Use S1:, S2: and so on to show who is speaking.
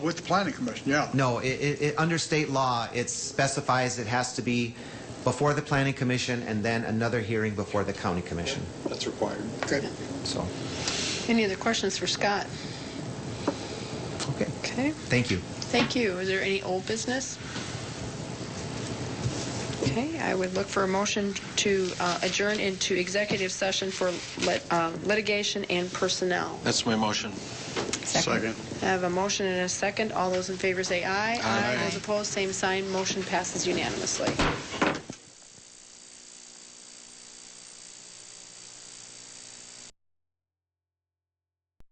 S1: With the planning commission, yeah.
S2: No, it, it, it, under state law, it specifies it has to be before the planning commission and then another hearing before the county commission,
S3: That's required.
S1: Okay.
S2: so,
S4: Any other questions for Scott?
S2: okay.
S4: Okay,
S2: Thank you.
S4: thank you. Is there any old business? Okay, I would look for a motion to uh, adjourn into executive session for lit- uh, litigation and personnel.
S3: That's my motion.
S1: Second.
S4: I have a motion and a second. All those in favor say aye.
S3: Aye.
S4: Those opposed, same sign. Motion passes unanimously.